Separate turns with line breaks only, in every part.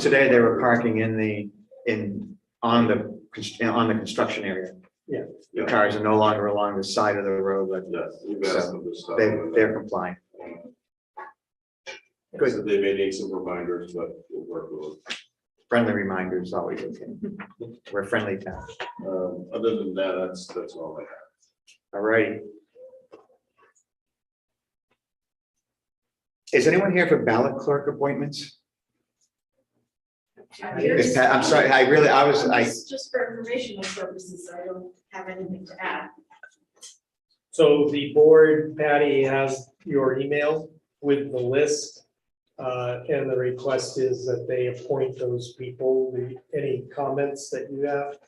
Today, they were parking in the, in, on the, const- on the construction area.
Yeah.
The cars are no longer along the side of the road, but
Yes, we've got some of this stuff.
they, they're complying. good.
So they may need some reminders, but we'll work with it.
Friendly reminders always okay. We're a friendly town.
Um, Other than that, that's, that's all I have.
All right. Is anyone here for ballot clerk appointments? Is Pat- I'm sorry, I really, I was, I,
Just just for informational purposes, I don't have anything to add.
So the board, Patty, has your email with the list. uh, And the request is that they appoint those people. The- Any comments that you have?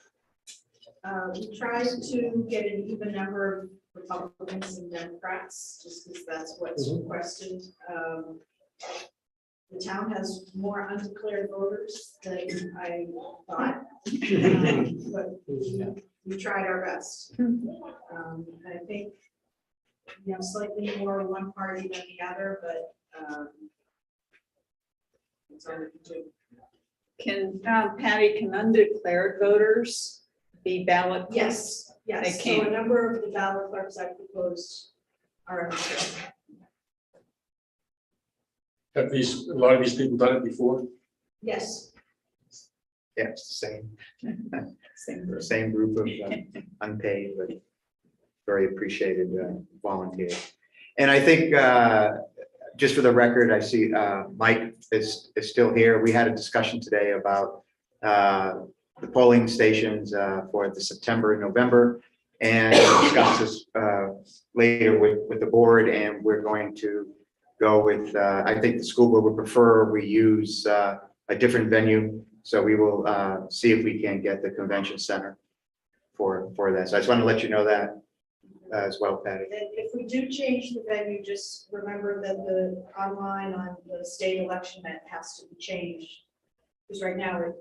Uh, we tried to get an even number of Republicans and Democrats, just because that's what's
Mm-hmm.
Mhm.
requested. Um, The town has more undeclared voters than I thought. um, But we we tried our best. Um, I think, you know, slightly more one party than the other, but, um, it's hard to do.
Can, um, Patty, can undeclared voters be ballot?
Yes, yes,
They
so a
can.
number of the ballot clerks I proposed are.
Have these, a lot of these people done it before?
Yes,
yeah, it's the same,
Same group.
same group of uh, unpaid, but very appreciated uh, volunteers. And I think, uh, just for the record, I see uh, Mike is, is still here. We had a discussion today about uh, the polling stations uh, for the September and November. And discuss this uh, later with, with the board, and we're going to go with, uh, I think the school board would prefer we use uh, a different venue. So we will uh, see if we can get the convention center for, for that. So I just want to let you know that uh, as well, Patty.
and if we do change the venue, just remember that the online on the state election that has to be changed. Because right now, it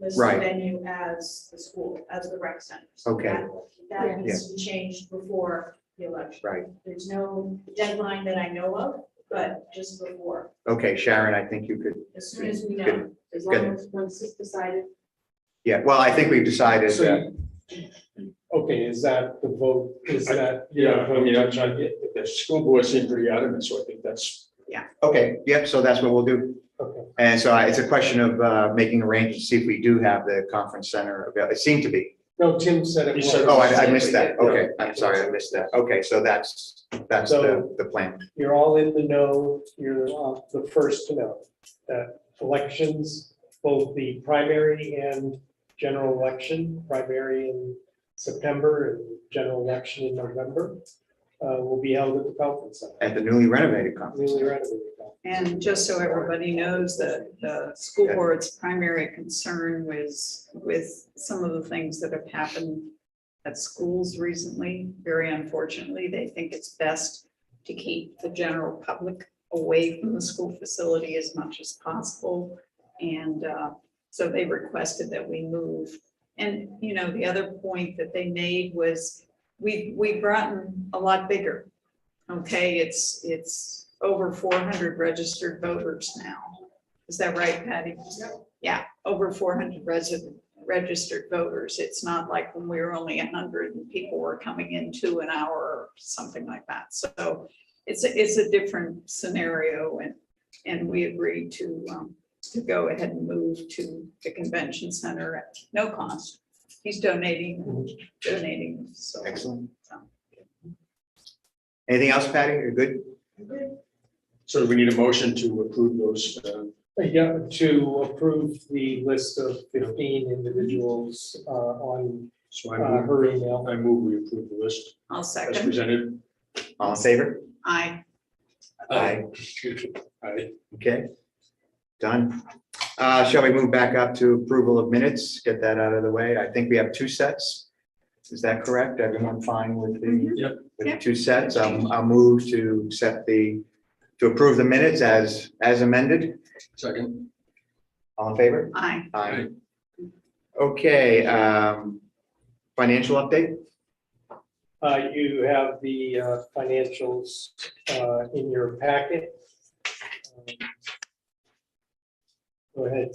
lists the
Right.
venue as the school, as the rec center. So
Okay.
that- That needs to be changed before the election.
Right.
There's no deadline that I know of, but just before,
Okay, Sharon, I think you could,
as soon as we know.
Good.
As
long Good.
as once it's decided.
yeah, well, I think we've decided
So
that,
you- Okay, is that the vote? Is that?
Yeah, I mean, I'm trying, the the school board seemed pretty adamant, so I think that's,
okay, yep, so that's what we'll do.
Okay.
And so I- it's a question of uh, making arrangements, see if we do have the conference center available. It seemed to be.
No, Tim said it.
He
was.
said-
Oh, I, I missed that. Okay, I'm sorry, I missed that. Okay, so that's, that's the,
So-
the plan.
You're all in the know. You're uh, the first to know that elections, both the primary and general election, primary in September and general election in November, uh, will be held at the conference center.
At the newly renovated conference.
Newly
center.
renovated conference.
And just so everybody knows that the school
Yeah.
board's primary concern was with some of the things that have happened at schools recently. Very unfortunately, they think it's best to keep the general public away from the school facility as much as possible. And uh, so they requested that we move. And, you know, the other point that they made was we, we've gotten a lot bigger. Okay, it's, it's over four hundred registered voters now. Is that right, Patty? Yeah, over four hundred resident, registered voters. It's not like when we were only hundred and people were coming in two an hour or something like that. So it's, a it's a different scenario and, and we agreed to, um, to go ahead and move to the convention center at no cost. He's donating, donating, so.
Excellent. Anything else, Patty? You're good?
so we need a motion to approve those. uh,
Yeah, to approve the list of fifteen individuals uh, on
So
uh,
I move,
her email.
I move we approve the list
I'll
as
second.
presented.
All in favor?
Aye.
Aye.
Aye.
Okay. Done. Uh, shall we move back up to approval of minutes? Get that out of the way. I think we have two sets. Is that correct? Everyone fine with the?
Mhm.
Yep.
With the
Yep.
two sets, I'll, I'll move to accept the, to approve the minutes as, as amended.
Second.
All in favor?
Aye.
Aye. Okay, um, financial update?
Uh, you have the uh, financials, uh, in your packet. Um, Go ahead,